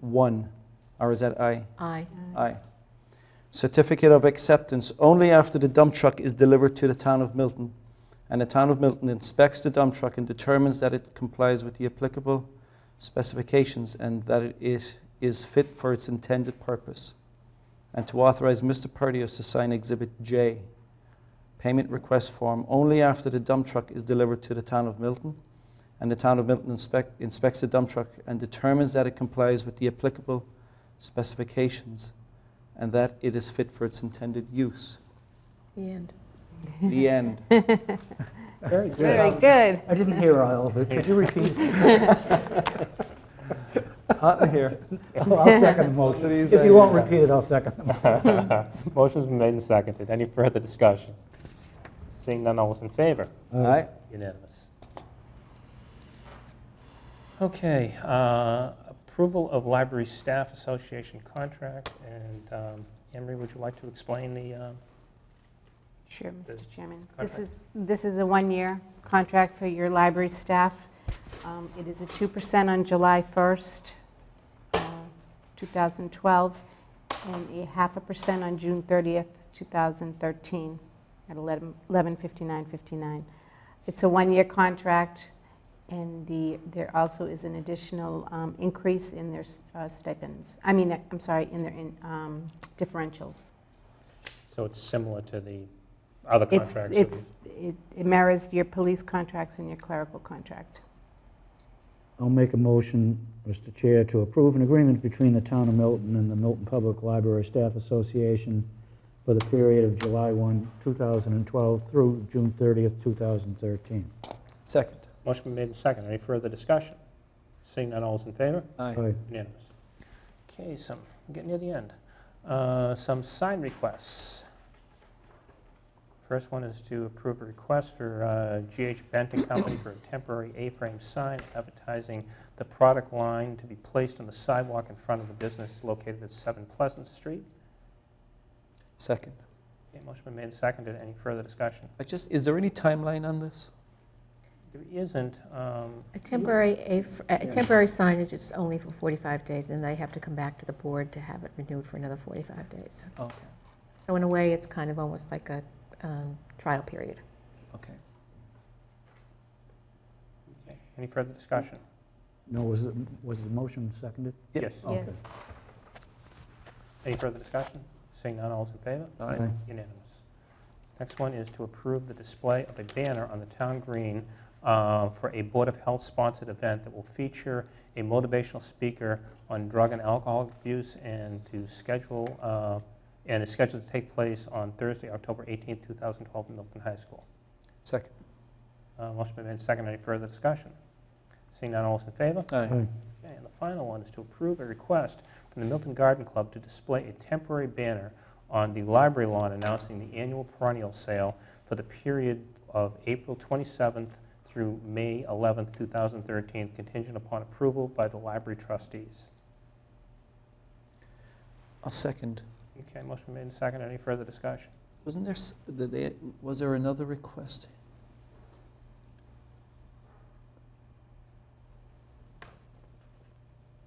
one, or is that aye? Aye. Aye. Certificate of acceptance only after the dump truck is delivered to the town of Milton, and the town of Milton inspects the dump truck and determines that it complies with the applicable specifications and that it is, is fit for its intended purpose. And to authorize Mr. Perdios to sign Exhibit J, payment request form, only after the dump truck is delivered to the town of Milton, and the town of Milton inspect, inspects the dump truck and determines that it complies with the applicable specifications and that it is fit for its intended use. The end. The end. Very good. Very good. I didn't hear all of it. Could you repeat? Hot in here. Well, I'll second the motion. If you won't repeat it, I'll second the motion. Motion's been made and seconded. Any further discussion? Seeing none, all is in favor? All right. Unanimous. Okay, uh, approval of Library Staff Association contract, and um, Emery, would you like to explain the um, Sure, Mr. Chairman. This Contract. is, this is a one-year contract for your library staff. Um, It is a 2% on July 1st, uh, 2012, and a half a percent on June 30th, 2013, at 11 11:59.59. It's a one-year contract, and the, there also is an additional um, increase in their uh, stipends, I mean, I'm sorry, in their in, um, differentials. So it's similar to the other It's, contracts? that it's, it it mirrors your police contracts and your clerical contract. I'll make a motion, Mr. Chair, to approve an agreement between the Town of Milton and the Milton Public Library Staff Association for the period of July 1, 2012 through June 30th, 2013. Second. we- Motion been made and seconded. Any further discussion? Seeing none, all is in favor? Aye. Aye. Unanimous. Okay, some, we're getting near the end. Uh, Some sign requests. First one is to approve a request for uh, GH Bent and Company for a temporary A-frame sign advertising the product line to be placed on the sidewalk in front of the business located at 7 Pleasant Street. Second. Okay, motion been made and seconded. Any further discussion? I just, is there any timeline on this? There isn't, um, A temporary, a f- a temporary signage is only for 45 days, and they have to come back to the board to have it renewed for another 45 days. Okay, So in a way, it's kind of almost like a um, trial period. okay. okay, any further discussion? No, was it, was the motion seconded? Yep. Yes. Yes. Okay. Any further discussion? Seeing none, all's in favor? Aye. Aye. Unanimous. Next one is to approve the display of a banner on the town green uh, for a Board of Health sponsored event that will feature a motivational speaker on drug and alcohol abuse and to schedule, uh, and is scheduled to take place on Thursday, October 18th, 2012, in Milton High School. Second. Uh, Motion been made and seconded. Any further discussion? Seeing none, all's in favor? Aye. Aye. Okay, and the final one is to approve a request from the Milton Garden Club to display a temporary banner on the library lawn announcing the annual perennial sale for the period of April 27th through May 11th, 2013, contingent upon approval by the library trustees. I'll second. Okay, motion made and seconded. Any further discussion? Wasn't there, s- did they- was there another request?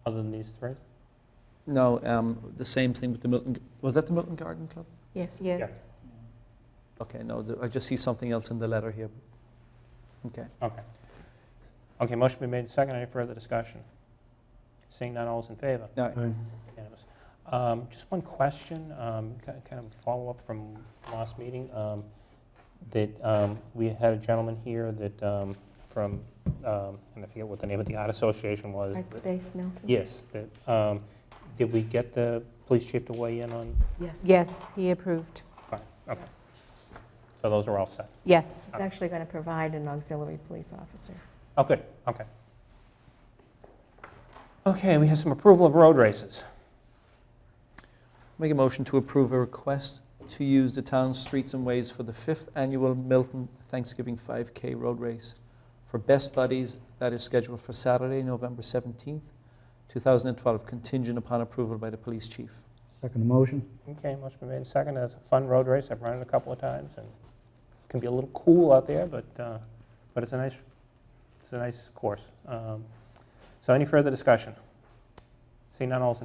Other than these three? No, um, the same thing with the Milton, was that the Milton Garden Club? Yes. Yes. Okay, no, the- I just see something else in the letter here. Okay. Okay. Okay, motion been made and seconded. Any further discussion? Seeing none, all is in favor? Aye. Aye. Unanimous. Um, Just one question, um, ki- kind of a follow-up from last meeting, um, that um, we had a gentleman here that, um, from, um, and I forget what the name of the art association was. Art but- Space Milton? Yes, that, um, did we get the police chief to weigh in on, Yes. Yes, he approved. fine, okay. So those are all set. Yes. It's actually going to provide an auxiliary police officer. Oh, good, okay. Okay, we have some approval of road races. Make a motion to approve a request to use the town's streets and ways for the fifth annual Milton Thanksgiving 5K Road Race for Best Buddies that is scheduled for Saturday, November 17th, 2012, contingent upon approval by the police chief. Second the motion? Okay, motion been made and seconded. It's a fun road race. I've run it a couple of times, and it can be a little cool out there, but, uh, but it's a nice, it's a nice course. Um, So any further discussion? Seeing none, all is in